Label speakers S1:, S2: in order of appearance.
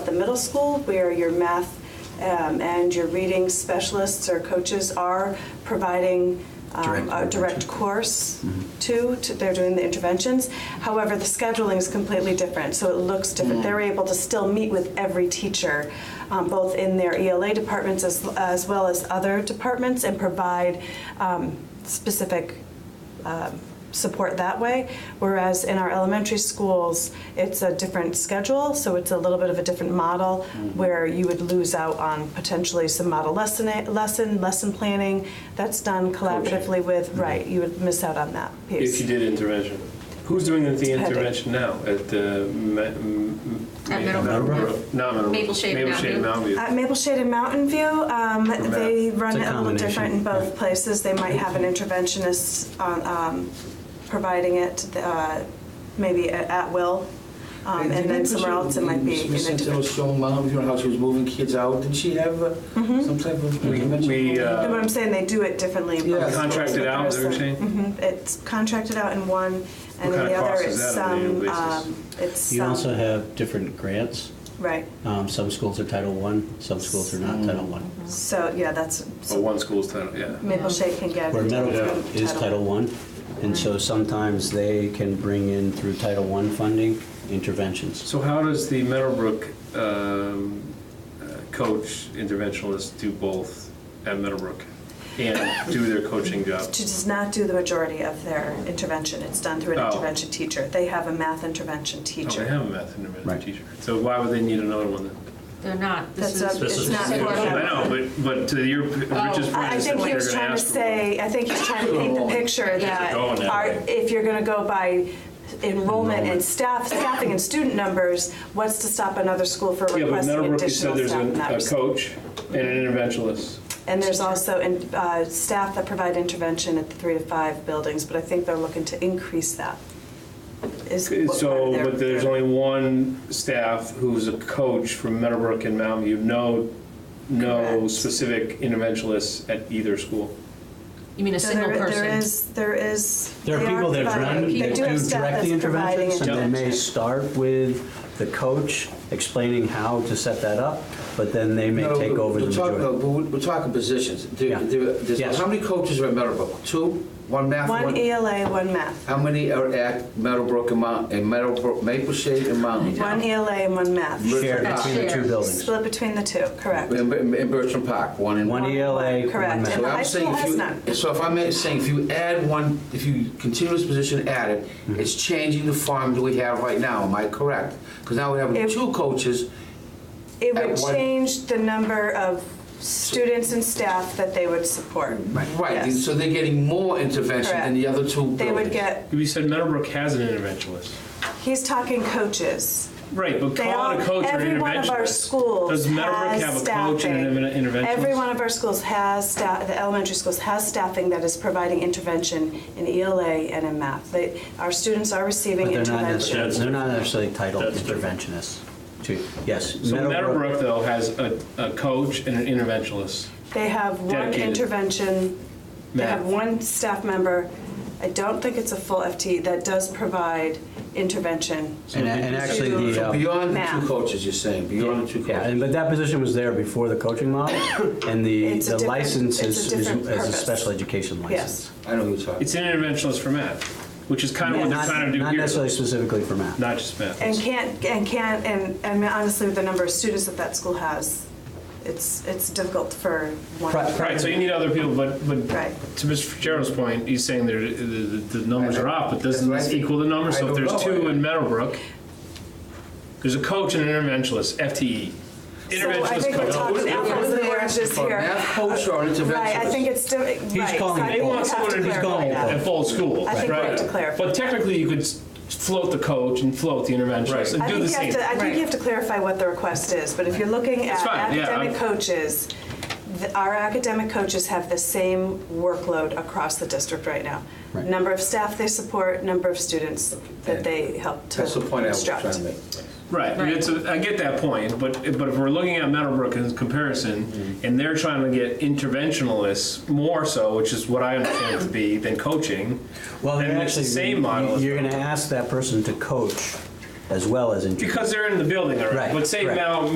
S1: the middle school where your math um, and your reading specialists or coaches are providing um,
S2: Direct
S1: a direct
S2: intervention. Mm-hmm.
S1: course to, to- they're doing the interventions. However, the scheduling is completely different, so it looks
S2: Mm-hmm.
S1: different. They're able to still meet with every teacher, um, both in their ELA departments as, as well as other departments, and provide um, specific um, support that way. Whereas in our elementary schools, it's a different schedule, so it's a little bit of a different model
S2: Mm-hmm.
S1: where you would lose out on potentially some model lesson, lesson, lesson planning. That's done collaboratively
S2: Mm-hmm.
S1: with, right, you would miss out on that
S3: If you
S1: piece.
S3: did intervention. Who's doing the
S1: Depending.
S3: intervention now at the? Ma- m-
S4: At
S3: Ma-
S4: Middleborough.
S3: Middleborough? Not Middleborough.
S4: Maple Shade, Mountain View.
S3: Mountain View.
S1: At Maple Shade and Mountain View, um, they run
S2: It's
S1: it
S2: a
S1: a little different in
S2: combination, Mm-hmm.
S1: both places. They might have an interventionist on, um, providing it, uh, maybe at at will. Um, And then somewhere else, it might be an
S5: Miss Santino
S1: individual.
S5: Stone, Mom, you know how she was moving kids out, did she have uh,
S1: Hmm? Mm-hmm.
S5: some type of
S3: We-
S5: intervention?
S3: we, uh,
S1: No, but I'm saying they do it differently. in
S5: Yeah.
S1: both
S3: Contracted
S1: schools,
S3: out, is that what you're
S1: but there's some- mhm, It's contracted out in one, and in
S3: kinda
S1: the other,
S3: cost is
S1: it's
S3: that on an
S1: some,
S3: annual basis?
S1: um, it's
S2: You also
S1: some,
S2: have different grants.
S1: right.
S2: Um, Some schools are Title I, some schools are not Title I.
S1: So, yeah, that's,
S3: Or one school's title, yeah.
S1: Maple Shade can get.
S2: Where Meadowbrook
S1: from
S2: is Title I, and so sometimes they can bring in through Title I funding interventions.
S3: So how does the Meadowbrook um, uh, coach interventionist do both at Meadowbrook and do their coaching job? Oh,
S1: She does not do the majority of their intervention. It's done through an
S3: Oh.
S1: intervention teacher. They have a math intervention
S3: Oh, they
S1: teacher.
S3: have a math intervention
S2: Right.
S3: teacher. So why would they need another one then?
S4: They're not. This
S1: That's
S4: is.
S1: a- This
S2: it's
S1: not
S4: this is
S1: for
S4: what-
S1: them.
S3: I know, but, but to your, Rich's point is
S1: Oh, I I
S3: that
S1: think he
S3: they're
S1: was
S3: gonna
S1: trying to
S3: ask for one.
S1: say, I think he's trying to paint the picture that
S3: going that
S1: our-
S3: way.
S1: if you're going to go by enrollment and staff, staffing and student numbers, what's to stop another school for
S3: Yeah, but
S1: requesting
S3: Meadowbrook, you
S1: additional
S3: said there's
S1: staff in
S3: an-
S1: that
S3: a
S1: respect?
S3: coach and an interventionist.
S1: And there's also in- uh, staff that provide intervention at the three to five buildings, but I think they're looking to increase that. is what part of
S3: So,
S1: their-
S3: but there's only one staff who's a coach from Meadowbrook and Mountain View, no, no
S1: Correct.
S3: specific interventionists at either school.
S4: You mean a
S1: So
S4: single
S1: there-
S4: person?
S1: There is, there is.
S2: There are
S1: they
S2: people that
S1: providing-
S2: run,
S1: they
S2: that
S1: do have
S2: do
S1: staff that's
S2: direct the
S1: providing
S2: interventions, and they may
S1: intervention.
S2: start with the coach explaining how to set that up, but then they may
S5: No,
S2: take over the
S5: we're talking-
S2: majority.
S5: no, We're we're talking positions. There-
S2: Yeah.
S5: there- there's-
S2: Yes.
S5: How many coaches are at Meadowbrook? Two? One math,
S1: One
S5: one?
S1: ELA, one math.
S5: How many are at Meadowbrook and Mount, and Meadowbrook, Maple Shade and Mountain? View?
S1: One ELA and one math.
S2: Shared
S5: That's
S2: between the two
S4: shared.
S2: buildings.
S1: Split between the two, correct.
S5: And and- and Bertram Park, E one and
S2: One ELA, one
S1: Correct.
S2: math.
S1: And
S5: So
S1: the
S5: I'm
S1: high
S5: saying
S1: school
S5: if
S1: has
S5: you-
S1: none.
S5: So if I'm saying, if you add one, if you continue this position added,
S2: Mm-hmm.
S5: it's changing the form that we have right now, am I correct? Because now we have
S1: If-
S5: two coaches,
S1: It
S5: at
S1: would
S5: one-
S1: change the number of students and staff that they would support.
S5: right,
S1: Yes.
S5: so they're getting more intervention than the other two
S1: They would
S5: buildings.
S1: get,
S3: You said Meadowbrook has an interventionist.
S1: he's talking coaches.
S3: Right, but
S1: They
S3: calling a
S1: all-
S3: coach or an
S1: every one of our
S3: interventionist.
S1: schools
S3: Does Meadowbrook
S1: has
S3: have a coach
S1: staffing.
S3: and an interven-
S1: Every
S3: interventionist?
S1: one of our schools has staff. The elementary schools has staffing that is providing intervention in ELA and in math. They, our students are receiving
S2: But they're not
S1: intervention.
S2: necessarily,
S6: That's
S2: they're not necessarily titled
S6: That's different.
S2: interventionists. too. Yes.
S3: So Meadowbrook, though, has a, a coach and an interventionist.
S1: They have one
S3: Dedicated.
S1: intervention. They have
S3: Math.
S1: one staff member. I don't think it's a full FTE that does provide intervention.
S2: And and actually, the,
S5: So
S2: uh,
S5: beyond the
S1: Math.
S5: two coaches, you're saying, beyond the two
S2: yeah, and-
S5: coaches.
S2: but that position was there before the coaching model, and the
S1: It's a
S2: the
S1: different-
S2: license
S1: it's a
S2: is is
S1: different
S2: is a
S1: purpose.
S2: special education
S1: Yes.
S2: license.
S5: I know who you're talking.
S3: It's an interventionist for math, which is kind of what they're
S2: Not
S3: trying to do
S2: not
S3: here.
S2: necessarily specifically for math.
S3: Not just math.
S1: And can't, and can't, and, and honestly, with the number of students that that school has, it's, it's difficult for one.
S2: Right,
S3: Right, so you need other people, but, but
S1: Right.
S3: to Mr. Fitzgerald's point, he's saying there, uh, the, the the numbers are off, but doesn't
S5: That's
S3: this
S5: right.
S3: equal the numbers?
S5: I
S3: So if
S5: don't
S3: there's
S5: know.
S3: two in Meadowbrook, there's a coach and an interventionist,
S1: So
S3: FTE.
S1: I
S3: Interventionist
S1: think we're
S3: E. coach.
S5: What are
S1: talking
S5: they- what are
S1: apples
S5: they
S1: and oranges
S5: asking for,
S1: here.
S5: math coach or an
S1: Right, I
S5: interventionist?
S1: think it's, di- right.
S2: calling
S1: so I
S2: it
S1: think
S3: They
S1: we
S3: want
S1: have
S3: someone
S1: to
S3: who's
S1: clarify
S3: going
S1: that.
S3: at full
S1: I
S3: school, right?
S1: think we have to clarify.
S3: But technically, you could s- float the coach and float the interventionist and
S1: I think
S3: do the
S1: you have
S3: same.
S1: to, I think you
S4: Right.
S1: have to clarify what the request is, but if you're looking at
S3: fine, yeah,
S1: academic
S3: I'm-
S1: coaches, th- our academic coaches have the same workload across the district right now.
S2: Right.
S1: Number of staff they support, number of students that they help to
S5: That's the point I was trying
S1: instruct.
S5: to make.
S3: Right,
S4: Right.
S3: it's a, I get that point, but, but if we're looking at Meadowbrook in comparison,
S2: Mm-hmm.
S3: and they're trying to get interventionalists more so, which is what I understand it to be, than coaching,
S2: Well,
S3: then
S2: they're
S3: it's the
S2: actually,
S3: same model. as
S2: you're going to ask that person to coach as well as interview.
S3: Because they're in the building already.
S2: Right,
S3: But say
S2: right.
S3: now